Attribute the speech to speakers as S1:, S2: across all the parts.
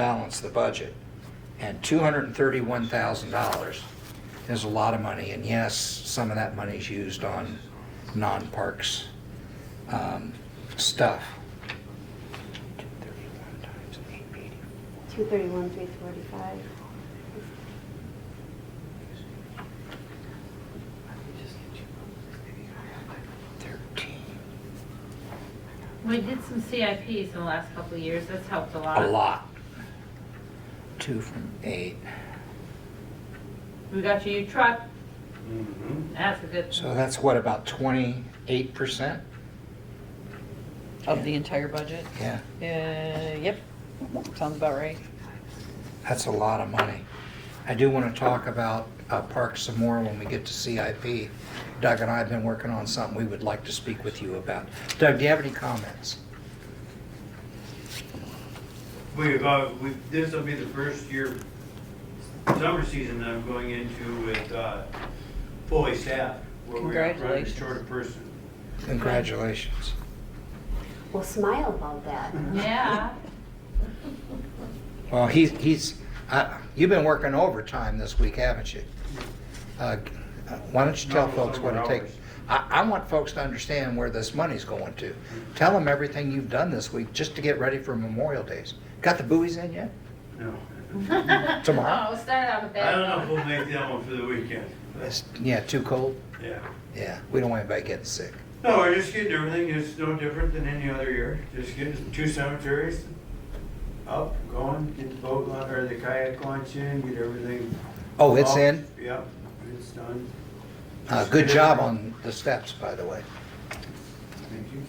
S1: balance the budget. And $231,000 is a lot of money, and yes, some of that money is used on non-parks um, stuff. 231 times 880.
S2: 231, 345.
S1: Thirteen.
S3: We did some CIPs in the last couple of years, that's helped a lot.
S1: A lot. Two from eight.
S3: We got you a new truck,
S4: Mm-hmm.
S3: that's a good,
S1: So that's what, about 28%?
S5: Of the entire budget?
S1: Yeah,
S5: Uh, yep, sounds about right.
S1: that's a lot of money. I do want to talk about uh, parks some more when we get to CIP. Doug and I have been working on something we would like to speak with you about. Doug, do you have any comments?
S4: We've, uh, we this will be the first year, summer season that I'm going into with, uh, fully staffed. where we are running
S5: Congratulations.
S4: Short a person.
S1: Congratulations.
S2: Well, smile about that.
S3: yeah.
S1: Well, he's, he's, uh, you've been working overtime this week, haven't you? Uh, Why don't you tell
S4: No,
S1: folks what it
S4: summer
S1: takes?
S4: hours.
S1: I, I want folks to understand where this money's going to. Tell them everything you've done this week just to get ready for Memorial Days. Got the buoys in yet?
S4: No.
S1: Tomorrow?
S3: Oh, start out with that.
S4: I don't know if we'll make that one for the weekend, but,
S1: It's- Yeah, too cold?
S4: yeah.
S1: Yeah, we don't want anybody getting sick.
S4: No, we're just getting everything, it's no different than any other year, just getting two cemeteries up, going, get the boat launch, or the kayak launch in, get everything.
S1: Oh, it's
S4: off.
S1: in?
S4: Yep, it's done.
S1: Uh, Good job on the steps, by the way.
S4: Thank you.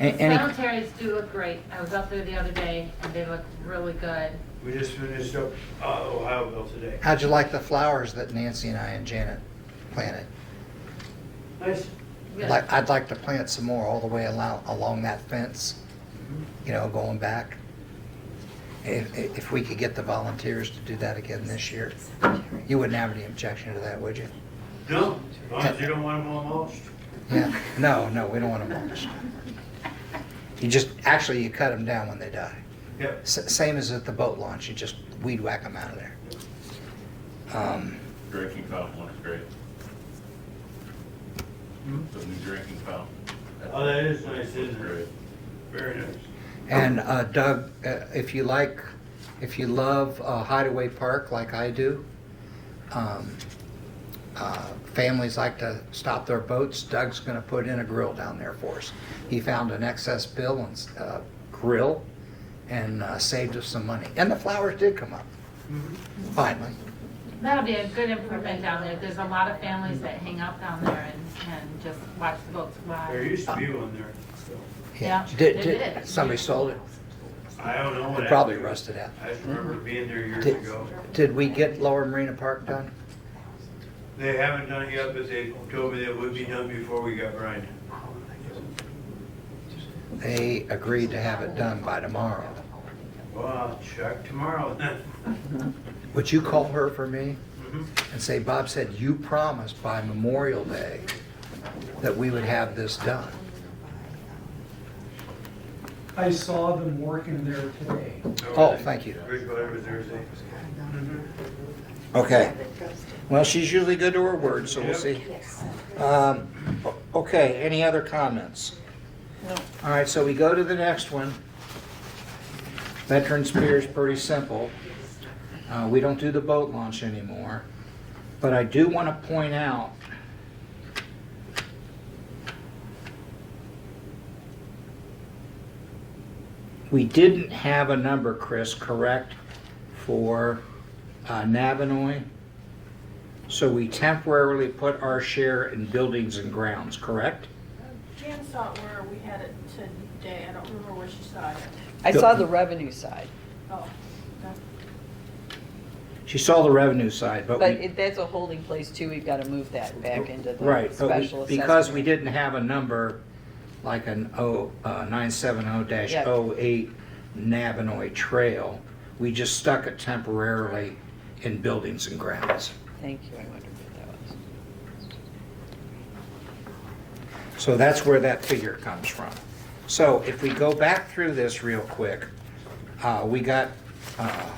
S1: A- Any,
S3: Cemeteries do look great, I was up there the other day, and they look really good.
S4: We just finished up, uh, Ohioville today.
S1: how'd you like the flowers that Nancy and I and Janet planted?
S4: Nice.
S3: Good.
S1: Like, I'd like to plant some more all the way along, along that fence, you know, going back. If, if we could get the volunteers to do that again this year, you wouldn't have any objection to that, would you?
S4: No, as long as you don't want them all mulched.
S1: Yeah, no, no, we don't want them mulched. You just, actually, you cut them down when they die.
S4: Yep.
S1: S- Same as at the boat launch, you just weed whack them out of there. Um,
S6: Drinking fountain looks great.
S4: Hmm?
S6: The new drinking fountain.
S4: Oh, that is nice, isn't it?
S6: Great.
S4: Very nice.
S1: And uh, Doug, uh, if you like, if you love uh, Hideaway Park like I do, um, uh, families like to stop their boats. Doug's going to put in a grill down there for us. He found an excess bill and uh, grill, and uh, saved us some money. And the flowers did come up finally.
S3: That'll be a good improvement down there, there's a lot of families that hang out down there and, and just watch the boats
S4: There
S3: fly.
S4: used to be one there, so,
S3: Yeah,
S1: Did,
S3: they
S1: did
S3: did.
S1: somebody sold it?
S4: I don't know what
S1: It
S4: happened.
S1: probably rusted out.
S4: I just remember being there years
S1: Did-
S4: ago.
S1: Did we get Lower Marina Park done?
S4: They haven't done it yet, but they told me that would be done before we got Brian.
S1: They agreed to have it done by tomorrow.
S4: Well, I'll check tomorrow then.
S1: Would you call her for me?
S4: Mhm.
S1: and say, Bob said, you promised by Memorial Day that we would have this done.
S7: I saw them working there today.
S1: Oh, thank you.
S4: Bridge whatever Thursday. Mhm.
S1: Okay. Well, she's usually good to her word, so we'll
S4: Yep.
S1: see.
S2: Yes.
S1: Um, o- Okay, any other comments?
S5: No.
S1: All right, so we go to the next one. Veterans Pier is pretty simple. Uh, We don't do the boat launch anymore. But I do want to point out we didn't have a number, Chris, correct, for uh, Navinoy? So we temporarily put our share in buildings and grounds, correct?
S8: Jan saw it where we had it today, I don't remember where she saw it.
S5: I saw the revenue side,
S8: Oh, okay.
S1: She saw the revenue side, but
S5: but
S1: we,
S5: it- that's a holding place too, we've got to move that back into the
S1: right, but we-
S5: special assessment.
S1: because we didn't have a number like an O, uh, 970-08 Navinoy Trail, we just stuck it temporarily in buildings and grounds.
S5: Thank you, I wondered what that was.
S1: So that's where that figure comes from. So if we go back through this real quick, uh, we got uh,